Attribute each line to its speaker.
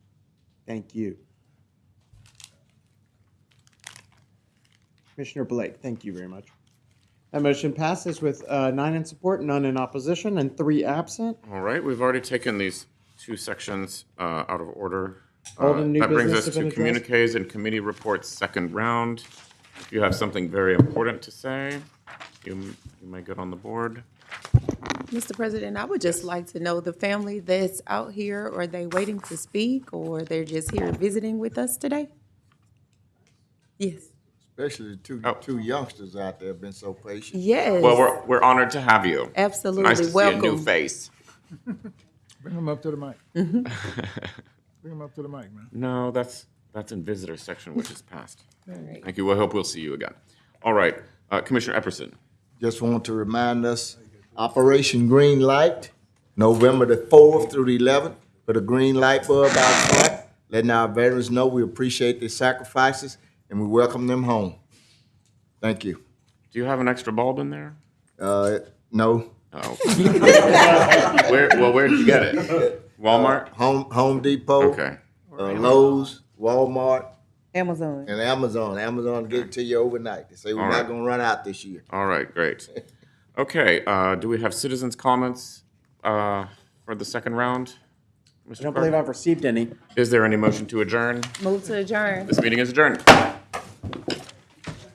Speaker 1: Thank you. Commissioner Blake, thank you very much. That motion passes with uh, nine in support, none in opposition, and three absent.
Speaker 2: All right, we've already taken these two sections uh, out of order.
Speaker 1: Old
Speaker 2: Uh,
Speaker 1: and new
Speaker 2: That brings
Speaker 1: business
Speaker 2: us
Speaker 1: have been
Speaker 2: to
Speaker 1: addressed.
Speaker 2: communiques and committee reports, second round. If you have something very important to say, you m- you may get on the board.
Speaker 3: Mr. President, I would just like to know the family that's out here, are they waiting to speak or they're just here visiting with us today? Yes.
Speaker 4: Especially the two,
Speaker 2: Oh.
Speaker 4: two youngsters out there have been so patient.
Speaker 3: Yes.
Speaker 2: Well, we're we're honored to have you.
Speaker 3: Absolutely.
Speaker 2: Nice to see a new
Speaker 3: Welcome.
Speaker 2: face.
Speaker 5: Bring them up to the mic. Bring them up to the mic, man.
Speaker 2: No, that's, that's in visitor section, which is passed.
Speaker 3: right.
Speaker 2: Thank you, we hope we'll see you again. All right, uh, Commissioner Epperson.
Speaker 4: Just want to remind us, Operation Green Light, November the fourth through the eleventh, put a green light bulb outside, letting our veterans know we appreciate their sacrifices and we welcome them home. Thank you.
Speaker 2: Do you have an extra bulb in there?
Speaker 4: Uh, no,
Speaker 2: Oh. Where, well, where'd you get it? Walmart?
Speaker 4: uh, Home, Home Depot.
Speaker 2: Okay.
Speaker 4: Uh, Lowe's, Walmart,
Speaker 3: Amazon.
Speaker 4: and Amazon. Amazon get it to you overnight. They say we're
Speaker 2: All
Speaker 4: not
Speaker 2: right.
Speaker 4: gonna run out this year.
Speaker 2: All right, great. Okay, uh, do we have citizens' comments uh, for the second round?
Speaker 1: I
Speaker 2: Mr.
Speaker 1: don't believe
Speaker 2: Clerk?
Speaker 1: I've received any.
Speaker 2: Is there any motion to adjourn?
Speaker 3: Move to adjourn.
Speaker 2: This meeting is adjourned.